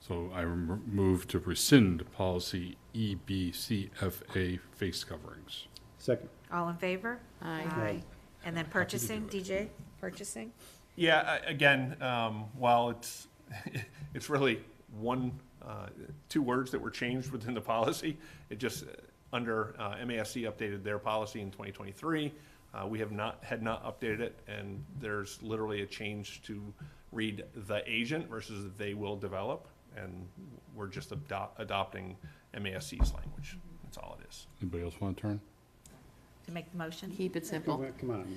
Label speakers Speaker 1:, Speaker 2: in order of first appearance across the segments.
Speaker 1: So I rem- move to rescind policy E EBCFA face coverings.
Speaker 2: Second.
Speaker 3: All in favor?
Speaker 2: Aye.
Speaker 3: And then purchasing, DJ, purchasing?
Speaker 4: Yeah, a- again, um, while it's, it's really one, uh, two words that were changed within the policy, it just, uh, under, uh, MASC updated their policy in 2023. Uh, we have not, had not updated it, and there's literally a change to read the agent versus they will develop, and we're just ado- adopting MASC's language. That's all it is.
Speaker 1: Anybody else want to turn?
Speaker 3: To make the motion?
Speaker 5: Keep it
Speaker 2: Come
Speaker 5: simple.
Speaker 2: on, Come on.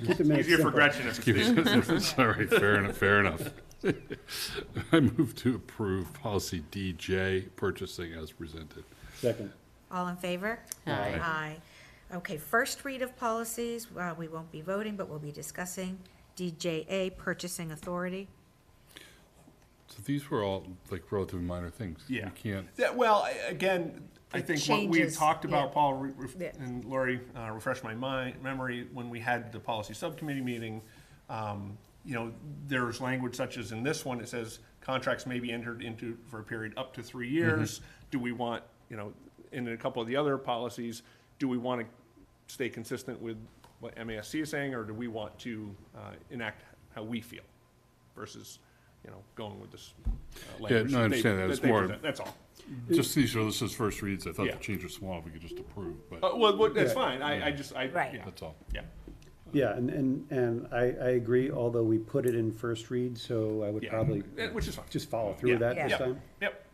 Speaker 2: Keep it nice
Speaker 4: Easier for
Speaker 2: simple.
Speaker 4: Gretchen if it's
Speaker 1: Keep it- Sorry, fair enough, fair enough. I move to approve policy DJ purchasing as presented.
Speaker 2: Second.
Speaker 3: All in favor?
Speaker 5: Aye.
Speaker 3: Aye. Okay, first read of policies, uh, we won't be voting, but we'll be discussing. DJA, purchasing authority.
Speaker 1: So these were all like relatively minor things.
Speaker 4: Yeah.
Speaker 1: You can't,
Speaker 4: That, well, I- again, I
Speaker 3: It
Speaker 4: think what we had
Speaker 3: changes,
Speaker 4: talked
Speaker 3: yeah.
Speaker 4: about, Paul, re- ref-
Speaker 3: Yeah.
Speaker 4: and Lori, uh, refresh my mind, memory, when we had the policy subcommittee meeting, um, you know, there's language such as in this one, it says contracts may be entered into for a period up to three
Speaker 1: Mm-hmm.
Speaker 4: years. Do we want, you know, in a couple of the other policies, do we want to stay consistent with what MASC is saying, or do we want to, uh, enact how we feel versus, you know, going with this uh, language?
Speaker 1: no, I
Speaker 4: they-
Speaker 1: understand that. It's
Speaker 4: they
Speaker 1: more-
Speaker 4: present. That's all.
Speaker 1: just these are, this is first reads. I thought
Speaker 4: Yeah.
Speaker 1: the change was small, we could just approve,
Speaker 4: Uh,
Speaker 1: but
Speaker 4: well, what- that's
Speaker 2: Yeah.
Speaker 4: fine, I, I just, I,
Speaker 3: Right.
Speaker 4: yeah,
Speaker 1: that's all.
Speaker 4: yeah,
Speaker 2: Yeah, and, and, and I, I agree, although we put it in first read, so I would
Speaker 4: Yeah.
Speaker 2: probably
Speaker 4: Eh, which is fine.
Speaker 2: just follow through with
Speaker 4: Yeah.
Speaker 2: that this
Speaker 3: Yeah.
Speaker 2: time.
Speaker 4: Yep.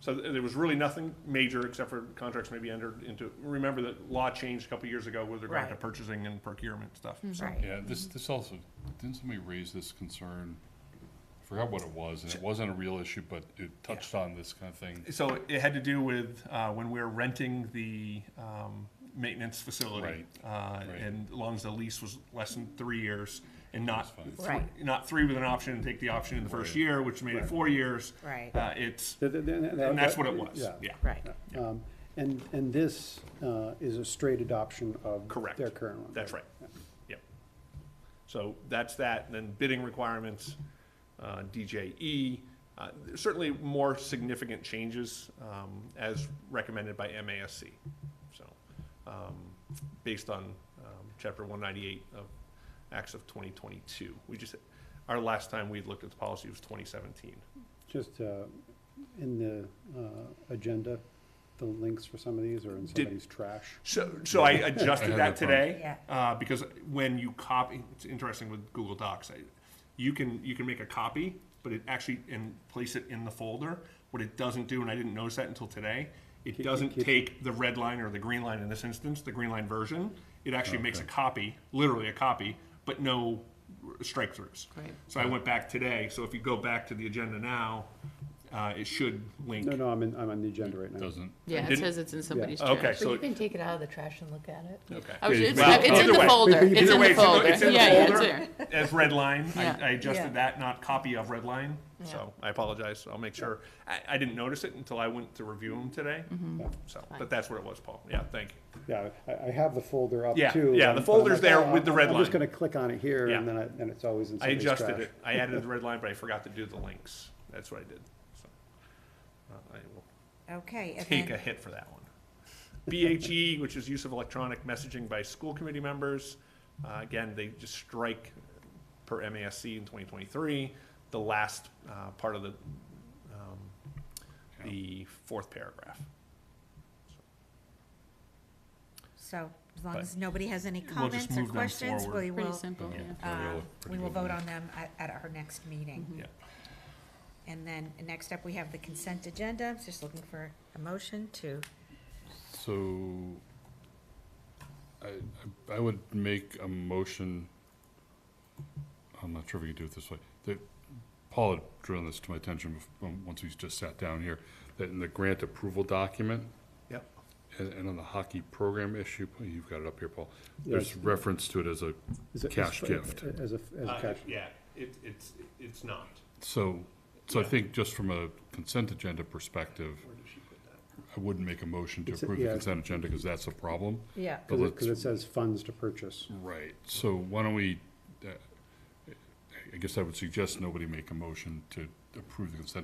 Speaker 4: So th- there was really nothing major except for contracts maybe entered into, remember that law changed a couple years ago with regard to
Speaker 3: Right. Mm-hmm.
Speaker 4: purchasing and procurement stuff, so.
Speaker 3: Right.
Speaker 1: Yeah, this, this also, didn't somebody raise this concern? I Forgot what it was, and it wasn't a real issue, but it touched on this kind of thing.
Speaker 4: So it had to do with, uh, when we were renting the, um, maintenance facility. Uh,
Speaker 1: Right.
Speaker 4: and as long as the lease was less than three years and not,
Speaker 1: That's
Speaker 4: thr-
Speaker 3: Right.
Speaker 4: not three with an option, and take the option in the first
Speaker 1: Right.
Speaker 4: year, which made it four years.
Speaker 3: Right.
Speaker 4: Uh, it's,
Speaker 2: Th- th- th- th-
Speaker 4: and that's
Speaker 2: that-
Speaker 4: what it was,
Speaker 2: yeah.
Speaker 4: yeah.
Speaker 3: Right.
Speaker 2: Um, And, and this uh, is a straight adoption of
Speaker 4: Correct.
Speaker 2: their current one.
Speaker 4: That's right. Yep. So that's that, and then bidding requirements, uh, DJE, uh, there's certainly more significant changes, um, as recommended by MASC. So, um, based on, um, chapter one ninety-eight of Acts of twenty twenty-two. We just, our last time we looked at the policy was twenty seventeen.
Speaker 2: Just uh, in the uh, agenda, the links for some of these are in
Speaker 4: Did-
Speaker 2: somebody's trash.
Speaker 4: So, so I
Speaker 1: I
Speaker 4: adjusted
Speaker 1: had that problem.
Speaker 4: that today.
Speaker 3: Yeah.
Speaker 4: Uh, because when you copy, it's interesting with Google Docs, I, you can, you can make a copy, but it actually, and place it in the folder. What it doesn't do, and I didn't notice that until today, it
Speaker 2: keep-
Speaker 4: doesn't
Speaker 2: keep-
Speaker 4: take the red line or the green line in this instance, the green line version. It actually makes a copy, literally a copy, but no strike throughs.
Speaker 5: Right.
Speaker 4: So I went back today, so if you go back to the agenda now, uh, it should link.
Speaker 2: No, no, I'm in, I'm on the agenda right now.
Speaker 1: Doesn't.
Speaker 5: Yeah, it
Speaker 4: didn't-
Speaker 5: says it's in somebody's
Speaker 4: Okay,
Speaker 5: trash.
Speaker 4: so-
Speaker 6: But you can take it out of the trash and look at it.
Speaker 4: Okay.
Speaker 5: I was- It's
Speaker 4: Well,
Speaker 5: it's in
Speaker 4: either
Speaker 5: the
Speaker 4: way.
Speaker 5: folder,
Speaker 2: Either
Speaker 5: it's in
Speaker 4: way, it's
Speaker 5: the
Speaker 4: in the-
Speaker 5: folder.
Speaker 4: it's in the
Speaker 5: Yeah, yeah, it's
Speaker 4: folder.
Speaker 5: there.
Speaker 4: as red line.
Speaker 5: Yeah.
Speaker 4: I, I adjusted
Speaker 3: Yeah.
Speaker 4: that, not copy of red line. So I apologize. I'll make sure. I, I didn't notice it until I went to review them today.
Speaker 5: Mm-hmm.
Speaker 4: So, but that's what it was, Paul. Yeah, thank you.
Speaker 2: Yeah, I, I have the folder up
Speaker 4: Yeah,
Speaker 2: too.
Speaker 4: yeah,
Speaker 2: and- but
Speaker 4: the
Speaker 2: I'm
Speaker 4: folder's
Speaker 2: like,
Speaker 4: there
Speaker 2: oh,
Speaker 4: with the red
Speaker 2: I'm just
Speaker 4: line.
Speaker 2: gonna click on it here and
Speaker 4: Yeah.
Speaker 2: then I, and it's always in
Speaker 4: I
Speaker 2: somebody's trash.
Speaker 4: adjusted it. I added the red line, but I forgot to do the links. That's what I did. So uh, I will
Speaker 3: Okay, and
Speaker 4: take a
Speaker 3: then,
Speaker 4: hit for that one. BHE, which is use of electronic messaging by school committee members. Uh, again, they just strike per MASC in 2023, the last uh, part of the um, the fourth paragraph.
Speaker 3: so as long
Speaker 4: But
Speaker 3: as nobody has any
Speaker 4: just
Speaker 3: comments or
Speaker 4: move them
Speaker 3: questions,
Speaker 4: forward.
Speaker 3: we
Speaker 5: Pretty
Speaker 3: will,
Speaker 5: simple, yeah.
Speaker 3: uh, we
Speaker 1: Pretty
Speaker 3: will
Speaker 1: good
Speaker 3: vote
Speaker 1: one.
Speaker 3: on them at, at our next meeting.
Speaker 4: Yeah.
Speaker 3: And then, next up, we have the consent agenda, just looking for a motion to,
Speaker 1: So I, I I would make a motion, I'm not sure if we could do it this way. That Paul had drawn this to my attention bef- um, once he's just sat down here, that in the grant approval document
Speaker 4: Yep.
Speaker 1: and, and on the hockey program issue, you've got it up here, Paul.
Speaker 2: Yeah,
Speaker 1: There's reference to it as a
Speaker 2: Is it- is-
Speaker 1: cash gift.
Speaker 2: As a, as a cash.
Speaker 4: yeah, Uh, it, it's it's not.
Speaker 1: So, so I
Speaker 4: Yeah.
Speaker 1: think just from a consent agenda perspective, I wouldn't make a motion to
Speaker 2: It's a-
Speaker 1: approve the
Speaker 2: yeah.
Speaker 1: consent agenda because that's a problem.
Speaker 3: yeah.
Speaker 1: But
Speaker 2: Cause it,
Speaker 1: let's
Speaker 2: 'cause it says funds to purchase.
Speaker 1: Right, so why don't we, uh, I guess I would suggest nobody make a motion to approve the consent